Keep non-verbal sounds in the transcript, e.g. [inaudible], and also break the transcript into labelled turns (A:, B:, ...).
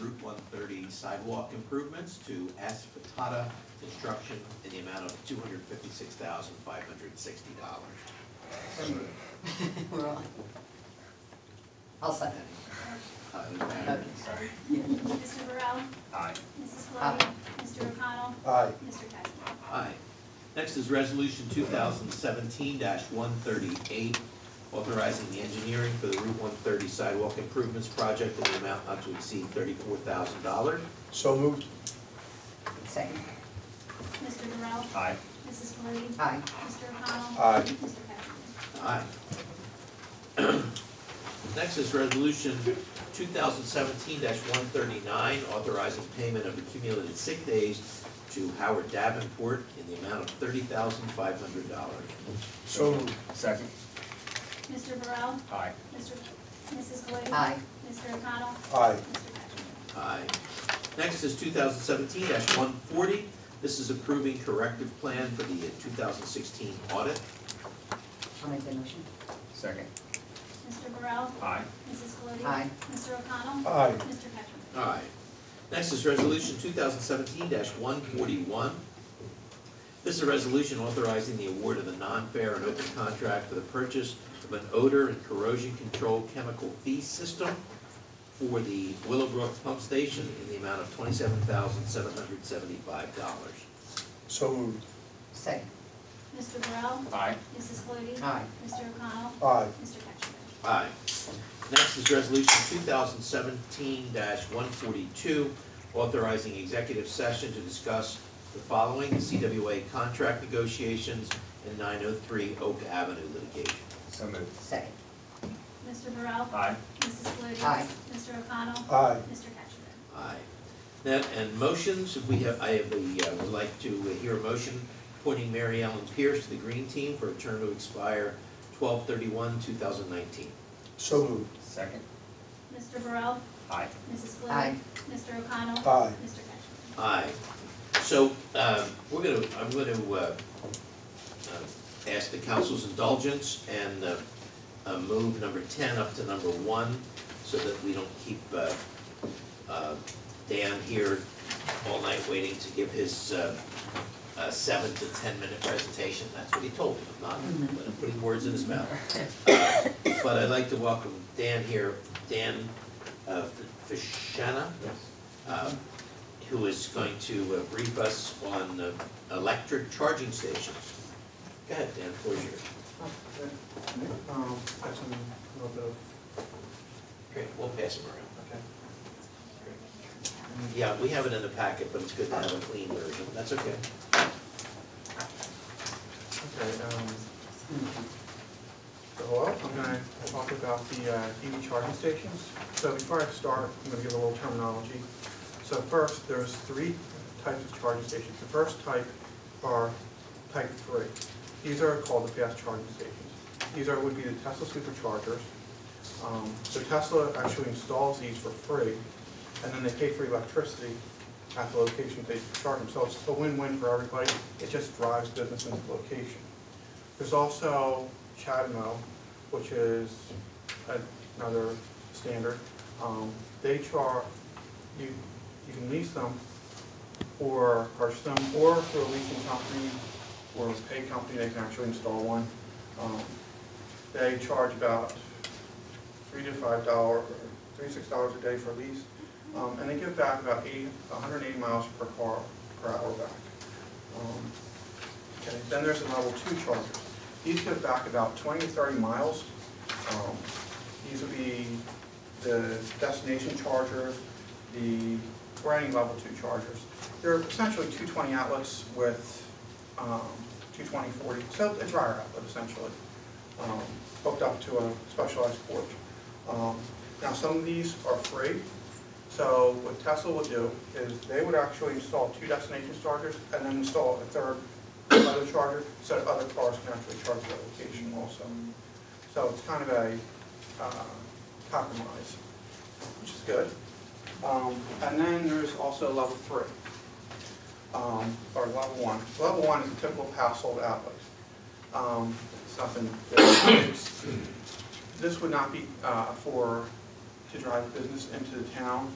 A: Route 130 sidewalk improvements to Aspatata Construction in the amount of $256,560.
B: We're on. [laughs] I'll second.
A: Uh, Ms. Patterson.
B: sorry.
C: Mr. Burrell?
D: Aye.
C: Mrs.
B: Aye.
C: Flowey? Mr. O'Connell?
E: Aye.
C: Mr. Cattrick?
A: Aye. Next is Resolution 2017-138, authorizing the engineering for the Route 130 sidewalk improvements project in the amount not to exceed $34,000.
E: So moved.
B: Second.
C: Mr. Burrell?
D: Aye.
C: Mrs. Flowey?
B: Aye.
C: Mr. O'Connell?
E: Aye.
C: Mr. Cattrick?
A: Aye. Next is Resolution 2017-139, authorizing payment of accumulated sick days to Howard Davenport in the amount of $30,500.
E: So moved.
D: Second.
C: Mr. Burrell?
D: Aye.
C: Mr. Mrs. Flowey?
B: Aye.
C: Mr. O'Connell?
E: Aye.
C: Mr. Cattrick?
A: Aye. Next is 2017-140. This is approving corrective plan for the 2016 audit.
B: I'll make the motion.
D: Second.
C: Mr. Burrell?
D: Aye.
C: Mrs. Flowey?
B: Aye.
C: Mr. O'Connell?
E: Aye.
C: Mr. Cattrick?
A: Aye. Next is Resolution 2017-141. This is a resolution authorizing the award of a non-fair and open contract for the purchase of an odor and corrosion control chemical fee system for the Willowbrook Pump Station in the amount of $27,775.
E: So moved.
B: Second.
C: Mr. Burrell?
D: Aye.
C: Mrs. Flowey?
B: Aye.
C: Mr. O'Connell?
E: Aye.
C: Mr. Cattrick?
A: Aye. Next is Resolution 2017-142, authorizing executive session to discuss the following, the CWA contract negotiations and 903 Oak Avenue litigation.
D: So moved.
B: Second.
C: Mr. Burrell?
D: Aye.
C: Mrs. Flowey?
B: Aye.
C: Mr. O'Connell?
E: Aye.
C: Mr. Cattrick?
A: Aye. That, and motions, if we have, I have the, uh, would like to hear a motion appointing Mary Ellen Pierce to the Green Team for a term to expire 12/31/2019.
E: So moved.
D: Second.
C: Mr. Burrell?
D: Aye.
C: Mrs. Flowey?
B: Aye.
C: Mr. O'Connell?
E: Aye.
C: Mr. Cattrick?
A: Aye. So, um, we're gonna, I'm gonna, uh, uh, ask the council's indulgence and, uh, uh, move number ten up to number one, so that we don't keep, uh, uh, Dan here all night waiting to give his, uh, uh, seven to ten-minute presentation, that's what he told me, I'm not, but I'm putting words in his mouth. Uh, But I'd like to welcome Dan here, Dan, uh, Fashana?
D: Yes.
A: uh, who is going to uh, brief us on uh, electric charging stations. Go ahead, Dan, floor is yours.
F: Um, Got some, a little bit of,
A: Great, we'll pass them around.
F: okay.
A: Yeah, we have it in the packet, but it's good to have a clean version, that's okay.
F: Okay, um, so hello, I'm gonna talk about the uh, EV charging stations. So before I start, I'm gonna give a little terminology. So first, there's three types of charging stations. The first type are type three. These are called the fast charging stations. These are, would be the Tesla superchargers. Um, So Tesla actually installs these for free, and then they pay for electricity at the location they charge them. So it's a win-win for everybody. It just drives business into the location. There's also CHAdeMO, which is another standard. Um, They charge, you, you can lease them or purchase them, or through a leasing company or a pay company, they can actually install one. Um, They charge about three to five dollar, three to six dollars a day for lease, um, and they give back about eighty, hundred and eighty miles per car, per hour back. Um, Okay, then there's the level two chargers. These give back about 20 to 30 miles. Um, These would be the destination chargers, the, or any level two chargers. They're essentially 220 outlets with um, 220, 40, so a dryer outlet essentially, um, hooked up to a specialized port. Um, Now, some of these are free, so what Tesla would do is they would actually install two destination chargers and then install a third other charger so that other cars can actually charge their location also. So it's kind of a uh, compromise, which is good. Um, And then there's also level three, um, or level one. Level one is a typical household outlet. Um, It's nothing, it's- this would not be uh, for, to drive business into the town.